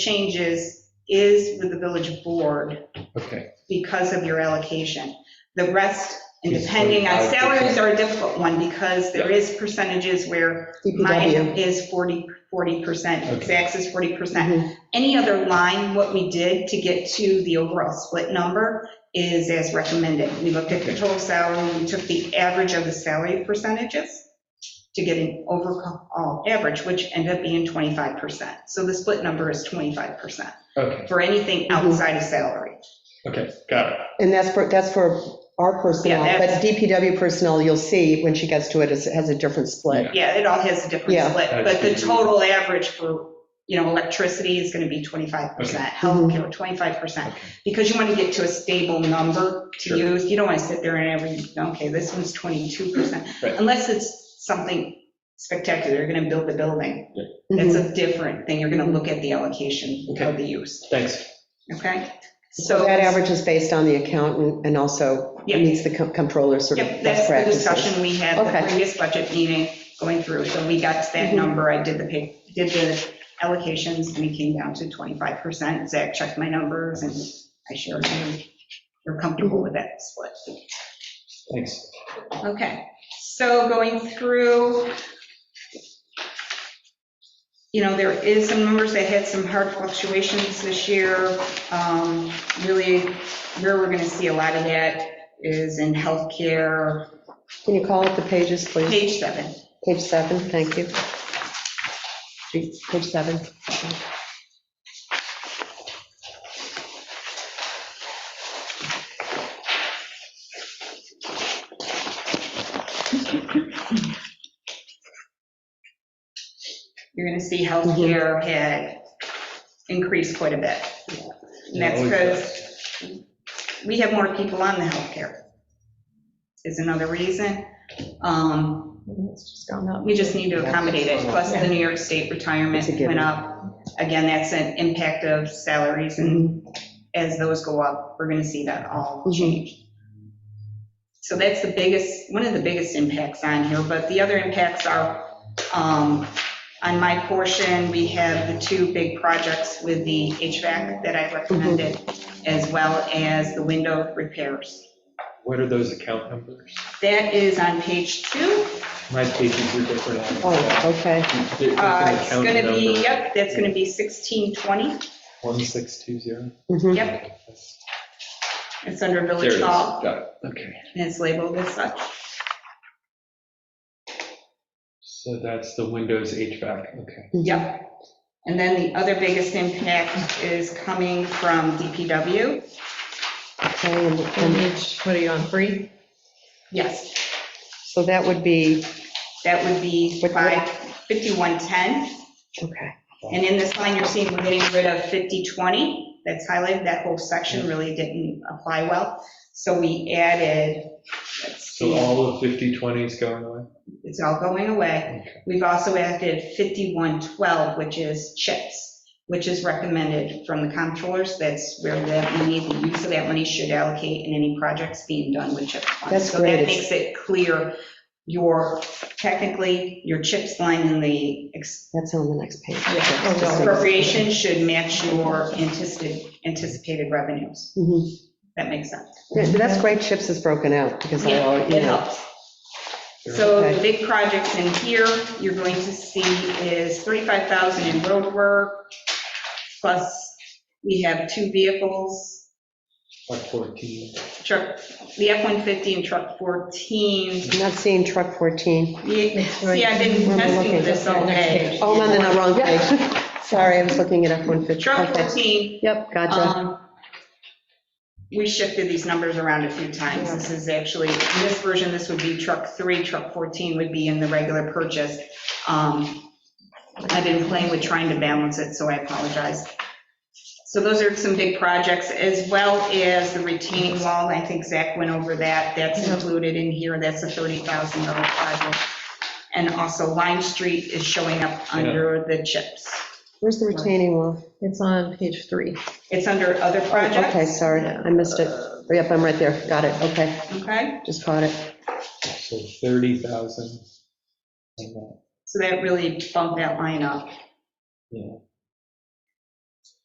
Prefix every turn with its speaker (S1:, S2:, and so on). S1: changes is with the village board
S2: Okay,
S1: because of your allocation. The rest, and
S2: Is
S1: depending on
S2: 45%.
S1: salaries are a difficult one because there is percentages where mine
S3: DPW.
S1: is 40, 40%,
S2: Okay.
S1: Zach's is 40%.
S3: Mhm.
S1: Any other line, what we did to get to the overall split number is as recommended. We looked at the
S2: Okay.
S1: total salary, we took the average of the salary percentages to get an overall average, which ended up being 25%. So the split number is 25%
S2: okay,
S1: for anything
S3: Mm-hmm.
S1: outside of salary.
S2: okay, got it.
S3: And that's for, that's for our personnel,
S1: Yeah,
S3: but
S1: that's-
S3: DPW personnel, you'll see when she gets to it, is- has a different split.
S1: Yeah, it all has a different
S3: Yeah.
S1: split, but the total average for, you know, electricity is gonna be 25%,
S3: Mm-hmm.
S1: healthcare 25%.
S2: Okay.
S1: Because you want to get to a stable number to
S2: Sure.
S1: use, you don't want to sit there and every, okay, this one's 22%.
S2: Right.
S1: Unless it's something spectacular, you're gonna build the building. That's
S3: Mhm.
S1: a different thing, you're gonna look at the allocation of the use,
S2: Thanks.
S1: okay?
S3: So
S1: So,
S3: that average is based on the accountant and also
S1: Yeah.
S3: meets the com- comptroller's sort of
S1: yep,
S3: best
S1: that's the
S3: practices.
S1: discussion we had the
S3: Okay.
S1: previous budget meeting going through. So we got to that
S3: Mhm.
S1: number, I did the, pay- did the allocations, and we came down to 25%. Zach checked my numbers, and I shared, you're comfortable with that split.
S2: Thanks.
S1: Okay, so going through, you know, there is some numbers that had some hard fluctuations this year. Um, Really, where we're going to see a lot of that is in healthcare,
S3: Can you call up the pages, please?
S1: page seven.
S3: Page seven, thank you. Page seven.
S1: You're going to see
S3: Mm-hmm.
S1: healthcare had increased quite a bit. And that's because we have more people on the healthcare is another reason. Um,
S3: It's just gone up.
S1: We just need to accommodate it, plus the New York State retirement
S3: It's a given.
S1: went up. Again, that's an impact of salaries, and as those go up, we're gonna see that all
S3: Mhm.
S1: change. So that's the biggest, one of the biggest impacts on here, but the other impacts are, um, on my portion, we have the two big projects with the HVAC that I recommended, as well as the window repairs.
S2: What are those account numbers?
S1: That is on page two.
S2: My pages are different.
S3: Oh, okay.
S2: There's an
S1: Uh, It's
S2: account
S1: gonna be,
S2: number,
S1: yep, that's gonna be 1620.
S2: 1620.
S3: Mhm.
S1: Yep, it's under
S2: There it
S1: Village
S2: is,
S1: Hall,
S2: got it, okay.
S1: and it's labeled as such.
S2: So that's the Windows HVAC, okay.
S3: Mm-hmm.
S1: Yep. And then the other biggest impact is coming from DPW.
S3: Okay, and-
S4: And
S1: Mm-hmm.
S3: and-
S4: each, what are you on, three?
S1: Yes,
S3: So that would be,
S1: that would be
S3: What- what-
S1: 5, 5110.
S3: okay,
S1: And in this line, you're seeing we're getting rid of 5020. That's highlighted, that whole section really didn't apply well. So we added, let's
S2: So
S1: see,
S2: all of 5020 is going away?
S1: it's all going away.
S2: Okay.
S1: We've also added 5112, which is chips, which is recommended from the comptrollers. That's where that money, the use of that money should allocate in any projects being done with chip funds.
S3: That's
S1: So that
S3: great.
S1: makes it clear your, technically, your chips line in the ex-
S3: that's on the next page.
S4: Yeah. Oh, no.
S1: appropriation should match your anticipated, anticipated revenues.
S3: Mhm.
S1: That makes sense.
S3: Yeah, That's great, chips is broken out because I, all- you
S1: It
S3: know.
S1: helps. So the
S3: Okay.
S1: big projects in here you're going to see is 35,000 in road work, plus we have two vehicles,
S2: Like 14?
S1: truck, the F-150 and truck 14.
S3: I'm not seeing truck 14.
S1: Yeah,
S4: right.
S1: See, I've been
S3: We're
S1: testing
S3: looking at
S1: this
S4: the
S1: all
S4: next
S1: day.
S4: page.
S3: Oh, I'm on the wrong page. Sorry, I was looking at F-150.
S1: Truck
S3: Okay.
S1: 14,
S3: Yep, gotcha.
S1: um, we shifted these numbers around a few times. This is actually, in this version, this would be truck 3, truck 14 would be in the regular purchase. Um, I've been playing with trying to balance it, so I apologize. So those are some big projects, as well as the retaining wall, I think Zach went over that, that's included in here, that's a $30,000 project. And also Lime Street is showing up under the chips.
S3: Where's the retaining wall?
S4: It's on page three. Uh,
S1: It's under other projects.
S3: Oh, Okay, sorry, I missed it. Yep, I'm right there. Got it, okay,
S1: Okay.
S3: just caught it.
S2: So 30,000. and uh, that.
S1: So that really bumped that line up.
S2: Yeah.